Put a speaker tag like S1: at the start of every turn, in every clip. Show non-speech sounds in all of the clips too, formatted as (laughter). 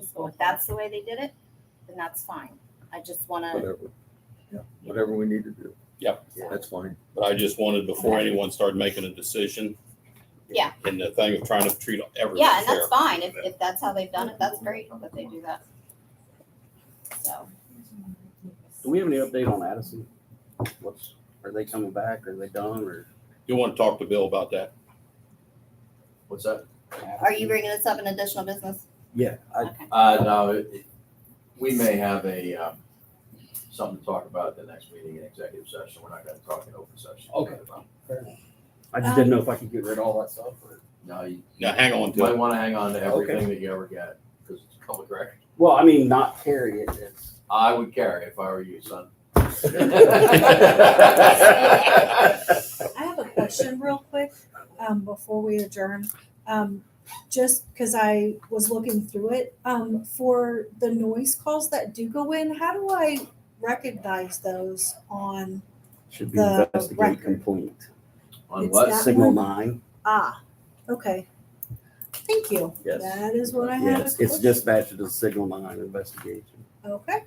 S1: if that's the way they did it, then that's fine. I just wanna,
S2: whatever. Yeah, whatever we need to do.
S3: Yep.
S2: That's fine.
S3: But I just wanted, before anyone started making a decision.
S1: Yeah.
S3: And the thing of trying to treat everyone
S1: yeah,
S3: fair.
S1: and that's fine. If, if that's how they've done it, that's great that they do that. So,
S4: Do we have any update on Addison? What's, are they coming back? Are they done or?
S3: You want to talk to Bill about that?
S5: What's that?
S1: are you bringing this up in additional business?
S4: Yeah, I,
S1: Okay.
S5: Uh, no, it, it- we may have a, um, something to talk about at the next meeting in executive session. We're not gonna talk in open session.
S4: Okay. I just
S1: Um,
S4: didn't know if I could get rid of all that stuff or.
S5: No, you
S3: Now, hang on
S5: you
S3: to
S5: might
S3: it.
S5: wanna hang on to everything that you ever get, because it's public record.
S4: Well, I mean, not carry it.
S6: (laughs)
S4: It's, (laughs)
S5: I would carry if I were you, son.
S6: I have a question real quick, um, before we adjourn. Um, just because I was looking through it, um, for the noise calls that do go in, how do I recognize those on,
S4: should be
S6: The
S4: investigate
S6: record.
S4: complaint.
S5: On
S6: It's
S5: what?
S6: That
S4: Signal
S6: one?
S4: nine,
S6: ah, okay. Thank you.
S4: Yes.
S6: That is what I had.
S4: yes, it's dispatched to the signal nine investigation.
S6: Okay,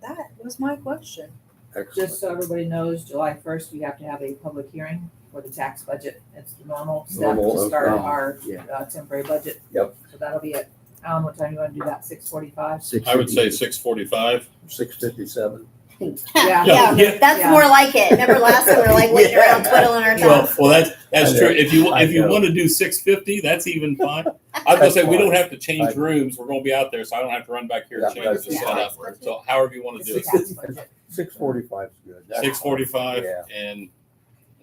S6: that was my question.
S7: Just
S2: Excellent.
S7: so everybody knows, July first, you have to have a public hearing for the tax budget. It's the normal step
S4: Normal,
S7: to start
S4: um,
S7: our
S4: yeah.
S7: uh, temporary budget.
S2: Yep.
S7: So that'll be it. Alan, what time you wanna do that? Six forty-five?
S3: I would say six forty-five.
S2: Six fifty-seven.
S7: Yeah.
S1: Yeah, that's
S7: Yeah.
S1: more like it. Remember last time we were like waiting around twiddling our thumbs?
S3: well, that's,
S2: that's true.
S3: If you,
S2: if you
S3: want to do six fifty, that's even fine. I
S2: was gonna say, we don't
S3: have to
S2: change
S3: rooms. We're going to be out there, so I don't have to run back
S2: here and Yeah, change
S1: the that's- setup. yeah. So
S3: however you want
S7: It's the tax budget.
S2: Six forty-five's good.
S3: Six forty-five
S2: Yeah.
S3: and,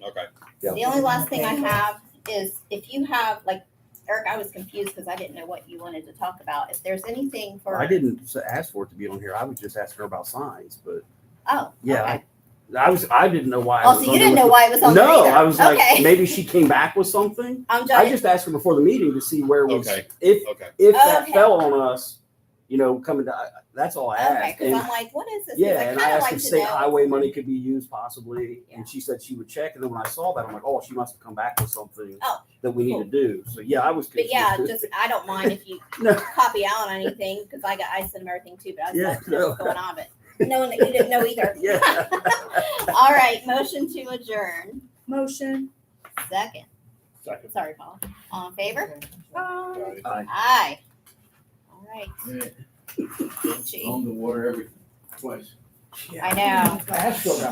S3: okay.
S2: Yeah.
S1: The only last thing I have is if you have, like, Eric, I was confused because I didn't know what you wanted to talk about. If there's anything
S4: I
S1: for,
S4: didn't s- ask for it to be on here. I was just asking her about signs, but
S1: oh,
S4: yeah,
S1: okay.
S4: I, I was, I didn't know why. I
S1: Oh,
S4: was
S1: so
S4: on
S1: you
S4: there
S1: didn't
S4: with
S1: know
S4: the-
S1: why it was on there
S4: No,
S1: either.
S4: I was like,
S1: Okay.
S4: maybe she came back with
S1: (laughs)
S4: something.
S1: I'm
S4: I
S1: just,
S4: just asked her before the meeting to see where we,
S3: Okay.
S4: if,
S3: Okay.
S4: if that
S1: Okay.
S4: fell on us, you know, coming to, I- that's all I
S1: okay,
S4: asked.
S1: because I'm
S4: And,
S1: like, what is this? 'Cause
S4: yeah, and I
S1: kinda
S4: asked
S1: like
S4: if
S1: to
S4: state
S1: know.
S4: highway money could be used possibly,
S1: Yeah.
S4: and she said she would check, and then when I saw that, I'm like, oh, she must have come back with something
S1: Oh,
S4: that we need
S1: cool.
S4: to do. So, yeah, I was
S1: But
S4: confused.
S1: yeah, just, I don't mind if you
S4: (laughs) No.
S1: copy out on anything because I got, I sent them everything too, but I was
S4: Yeah,
S1: like, what's
S4: no.
S1: going on, but knowing that you didn't
S4: (laughs)
S1: know either.
S4: Yeah.
S1: (laughs) All right, motion to adjourn.
S6: Motion,
S1: Second.
S3: Second.
S1: Sorry, Paul. All in favor?
S6: bye.
S1: Aye. All right.
S5: On the water every, twice.
S1: I know.
S5: I have still got